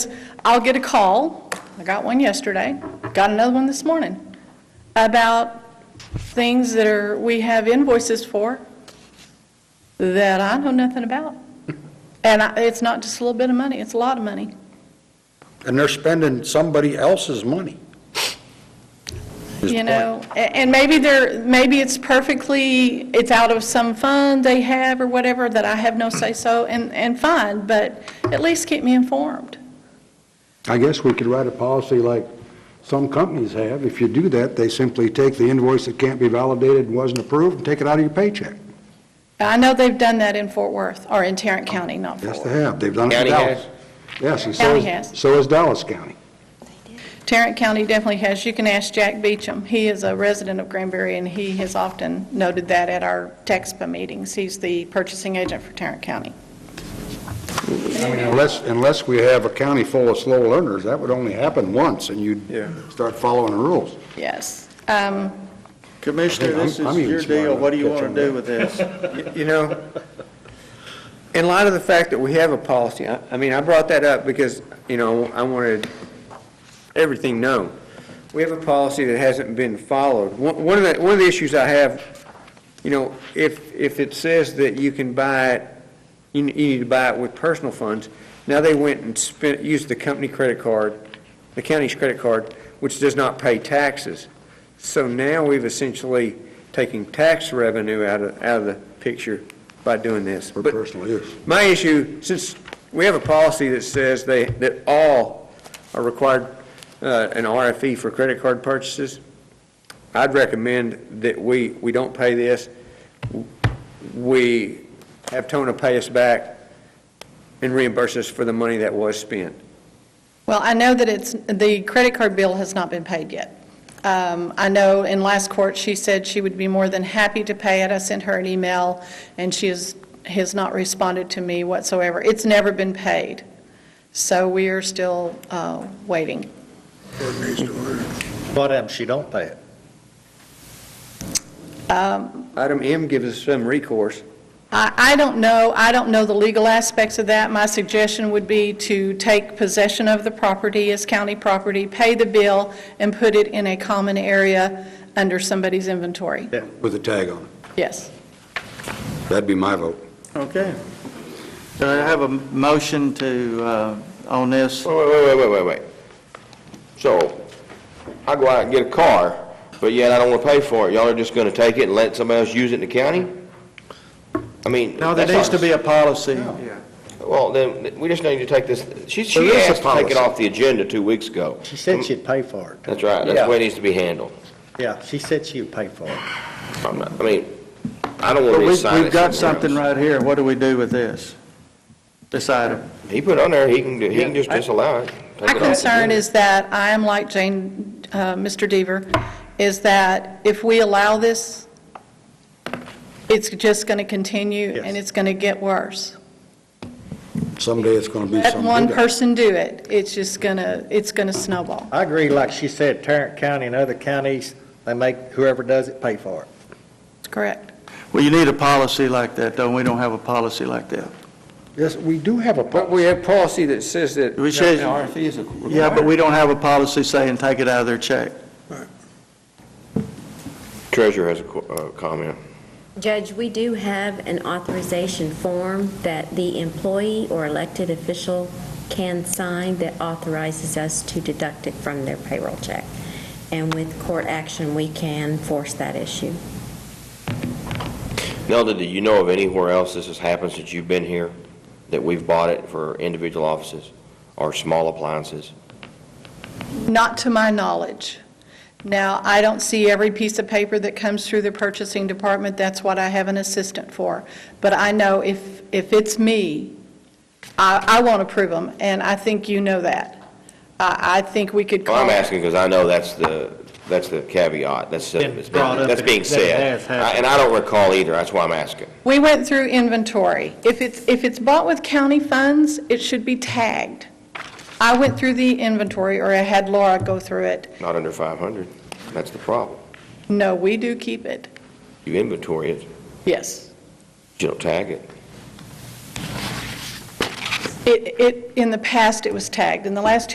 I'll get a call, I got one yesterday, got another one this morning, about things that are, we have invoices for that I know nothing about. And I- it's not just a little bit of money, it's a lot of money. And they're spending somebody else's money. His You point. know, a- and maybe they're, maybe it's perfectly, it's out of some fund they have or whatever that I have no say-so, and, and fine, but at least keep me informed. I guess we could write a policy like some companies have. If you do that, they simply take the invoice that can't be validated and wasn't approved and take it out of your paycheck. I know they've done that in Fort Worth, or in Tarrant County, not Fort Yes, Worth. they have. They've done it in County Dallas. Yes, and so County is, has. so is Dallas County. Tarrant County definitely has. You can ask Jack Beecham. He is a resident of Granbury, and he has often noted that at our TEXPA meetings. He's the purchasing agent for Tarrant County. Unless, unless we have a county full of slow learners, that would only happen once, and Yeah. you'd start following the rules. Yes. Um, Commissioner, this I'm- I'm is even your smarter deal, what do you than want to do with this? Y- You know, in light of the fact that we have a policy, I I mean, I brought that up because, you know, I wanted everything known. We have a policy that hasn't been followed. One one of the, one of the issues I have, you know, if, if it says that you can buy it, you you need to buy it with personal funds, now they went and spent, used the company credit card, the county's credit card, which does not pay taxes. So now we've essentially taken tax revenue out of, out of the picture by doing this. For But personal use. My issue, since we have a policy that says they, that all are required uh, an RFE for credit card purchases, I'd recommend that we, we don't pay this. We have Tona pay us back and reimburse us for the money that was spent. Well, I know that it's, the credit card bill has not been paid yet. Um, I know in last court, she said she would be more than happy to pay it. I sent her an email, and she has, has not responded to me whatsoever. It's never been paid, so we are still uh, waiting. What um, happens if she don't pay it? Item M gives us some recourse. I, I don't know, I don't know the legal aspects of that. My suggestion would be to take possession of the property as county property, pay the bill, and put it in a common area under somebody's inventory. With a tag on it. Yes. That'd be my vote. Okay. Do I have a motion to, uh, on this? Wait, wait, wait, wait, wait, wait. So, I go out and get a car, but yet I don't wanna pay for it. Y'all are just gonna take it and let somebody else use it in the county? I mean. No, there that's needs to not- be a policy. Well, then, we just need to take this, she, she There is a asked to take policy. it off the agenda two weeks ago. Um, She said she'd pay for it. Mm. That's right, that's the way it needs to be handled. Yeah, she said she would pay for it. I'm not- I mean, I don't But wanna we've, reassign it. we've got somewhere else. something right here. What do we do with this? This item? He put it on there, he can, do- he can just I- disallow it. take My it off the concern agenda. is that, I am like Jane, uh, Mr. Deaver, is that if we allow this, it's just going to continue, Yes. and it's going to get worse. Someday it's going to be Let some... one big- person do it, it's just going to, it's going to snowball. I agree, like she said, Tarrant County and other counties, they make whoever does it pay for it. That's correct. Well, you need a policy like that, though. We don't have a policy like that. Yes, we do have a But policy. we have policy that says that. We should- An RFE is required. Yeah, but we don't have a policy saying take it out of their check. Treasurer has a co- uh, comment. Judge, we do have an authorization form that the employee or elected official can sign that authorizes us to deduct it from their payroll check. And with court action, we can force that issue. Nelda, do you know of anywhere else this has happened since you've been here, that we've bought it for individual offices or small appliances? Not to my knowledge. Now, I don't see every piece of paper that comes through the purchasing department, that's what I have an assistant for. But I know if, if it's me, I, I won't approve them, and I think you know that. I, I think we could Well, call. I'm asking because I know that's the, that's the caveat, that's, Been it's brought been- up that's that- being that said. has happened. I- And I don't recall either, that's why I'm asking. We went through inventory. If it's, if it's bought with county funds, it should be tagged. I went through the inventory, or I had Laura go through it. Not under 500, that's the problem. No, we do keep it, You inventory it, yes. you don't tag it. It, it, in the past, it was tagged. In the last